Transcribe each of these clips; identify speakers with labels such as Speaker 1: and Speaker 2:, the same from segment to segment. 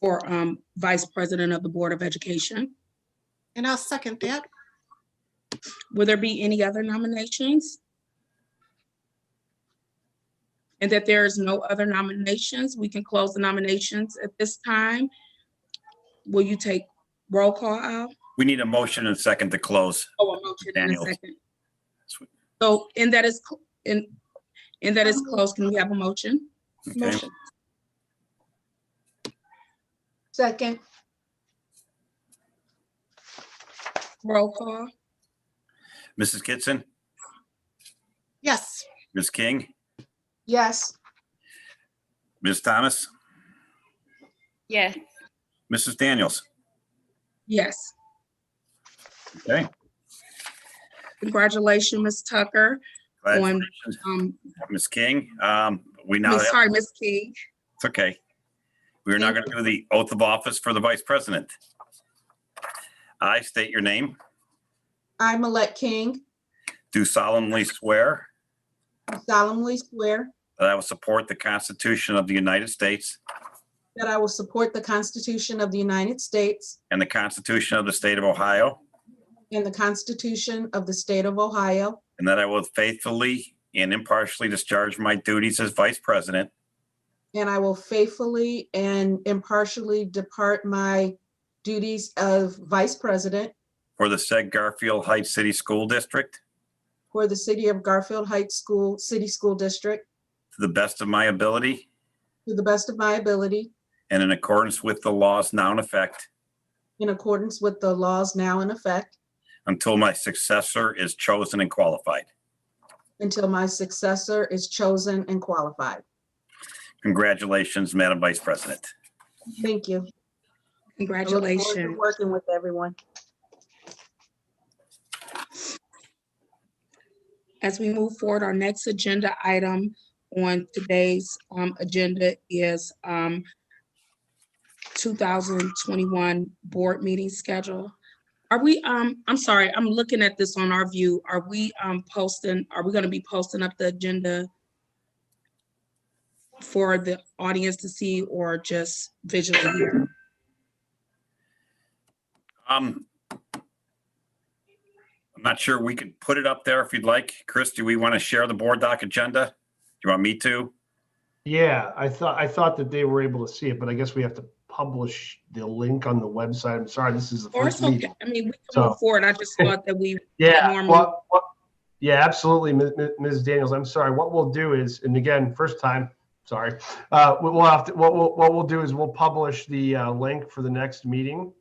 Speaker 1: for um, Vice President of the Board of Education.
Speaker 2: And I'll second that.
Speaker 1: Will there be any other nominations? And that there is no other nominations, we can close the nominations at this time. Will you take roll call, Al?
Speaker 3: We need a motion and second to close.
Speaker 1: Oh, a motion and a
Speaker 3: Daniels.
Speaker 1: second. So, and that is, cl- and, and that is closed. Can we have a motion?
Speaker 3: Okay,
Speaker 4: Motion. Second,
Speaker 1: Roll call?
Speaker 3: Mrs. Kitson,
Speaker 2: Yes,
Speaker 3: Ms. King,
Speaker 4: yes.
Speaker 3: Ms. Thomas,
Speaker 5: yes,
Speaker 3: Mrs. Daniels.
Speaker 1: Yes.
Speaker 3: Okay.
Speaker 1: Congratulations, Ms. Tucker, on,
Speaker 3: Congratulations,
Speaker 1: um,
Speaker 3: Ms. King. Um, we now,
Speaker 1: Ms.
Speaker 3: it's
Speaker 1: sorry, Ms. King.
Speaker 3: okay. We are now going to do the oath of office for the vice president. I state your name,
Speaker 4: I, Millette King,
Speaker 3: do solemnly swear
Speaker 4: solemnly swear
Speaker 3: that I will support the Constitution of the United States
Speaker 4: that I will support the Constitution of the United States
Speaker 3: and the Constitution of the State of Ohio,
Speaker 4: and the Constitution of the State of Ohio,
Speaker 3: and that I will faithfully and impartially discharge my duties as vice president
Speaker 4: and I will faithfully and impartially depart my duties of Vice President
Speaker 3: for the said Garfield Heights City School District
Speaker 4: for the City of Garfield Heights School, City School District,
Speaker 3: to the best of my ability
Speaker 4: to the best of my ability,
Speaker 3: and in accordance with the laws now in effect
Speaker 4: in accordance with the laws now in effect,
Speaker 3: until my successor is chosen and qualified.
Speaker 4: until my successor is chosen and qualified.
Speaker 3: Congratulations, Madam Vice President.
Speaker 4: Thank you. I look forward to
Speaker 1: Congratulations.
Speaker 4: Working with everyone.
Speaker 1: As we move forward, our next agenda item on today's um, agenda is um, 2021 board meeting schedule. Are we, um, I'm sorry, I'm looking at this on our view. Are we um, posting, are we going to be posting up the agenda for the audience to see or just visually here?
Speaker 3: Um, I'm not sure we could put it up there if you'd like. Chris, do we want to share the board doc agenda? Do you want me to?
Speaker 6: Yeah, I thought, I thought that they were able to see it, but I guess we have to publish the link on the website. I'm sorry, this is the
Speaker 1: Or
Speaker 6: first
Speaker 1: it's okay.
Speaker 6: meeting.
Speaker 1: I mean, we can
Speaker 6: So-
Speaker 1: move forward. I just thought that we
Speaker 6: Yeah,
Speaker 1: normal.
Speaker 6: well, well, yeah, absolutely, Mi- Mi- Ms. Daniels, I'm sorry. What we'll do is, and again, first time, sorry. Uh, we- we'll have to, what we'll, what we'll do is we'll publish the, uh, link for the next meeting.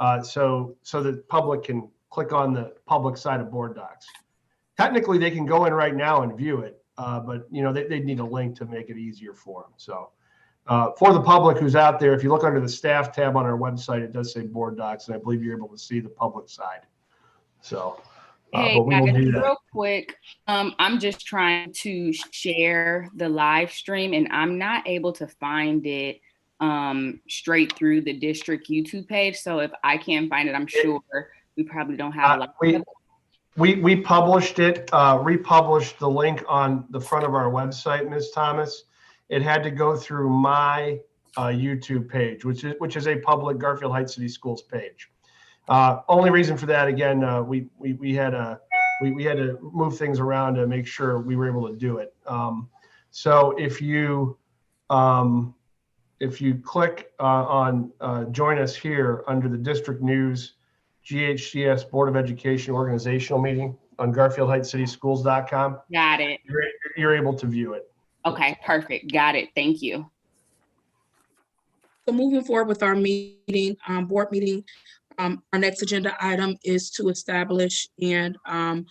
Speaker 6: Uh, so, so that public can click on the public side of board docs. Technically, they can go in right now and view it, uh, but you know, they, they need a link to make it easier for them, so. Uh, for the public who's out there, if you look under the staff tab on our website, it does say board docs, and I believe you're able to see the public side. So. uh,
Speaker 5: hey,
Speaker 6: but we will
Speaker 5: guys,
Speaker 6: do that.
Speaker 5: real quick, um, I'm just trying to share the live stream and I'm not able to find it um, straight through the district YouTube page. So if I can't find it, I'm sure we probably don't
Speaker 6: Uh,
Speaker 5: have. like-
Speaker 6: We, we, we published it, uh, republished the link on the front of our website, Ms. Thomas. It had to go through my, uh, YouTube page, which is, which is a public Garfield Heights City Schools page. Uh, only reason for that, again, uh, we, we, we had a, we, we had to move things around to make sure we were able to do it. Um, so if you, um, if you click, uh, on, uh, join us here under the district news, GHCS Board of Education organizational meeting on garfieldheightscityschools.com.
Speaker 5: Got it.
Speaker 6: You're, you're able to view it.
Speaker 5: Okay, perfect. Got it. Thank you.
Speaker 1: So moving forward with our meeting, um, board meeting, um, our next agenda item is to establish and, um,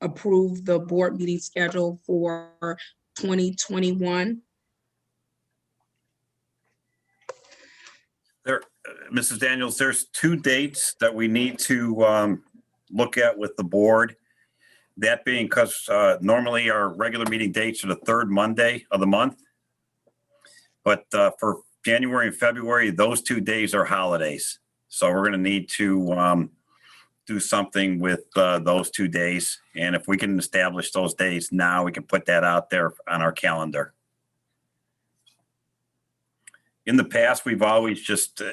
Speaker 1: approve the board meeting schedule for twenty twenty-one.
Speaker 3: There, uh, Mrs. Daniels, there's two dates that we need to um, look at with the board. That being because normally our regular meeting dates are the third Monday of the month. But uh, for January and February, those two days are holidays. So we're going to need to um, do something with uh, those two days. And if we can establish those days now, we can put that out there on our calendar. in the past, we've always just uh,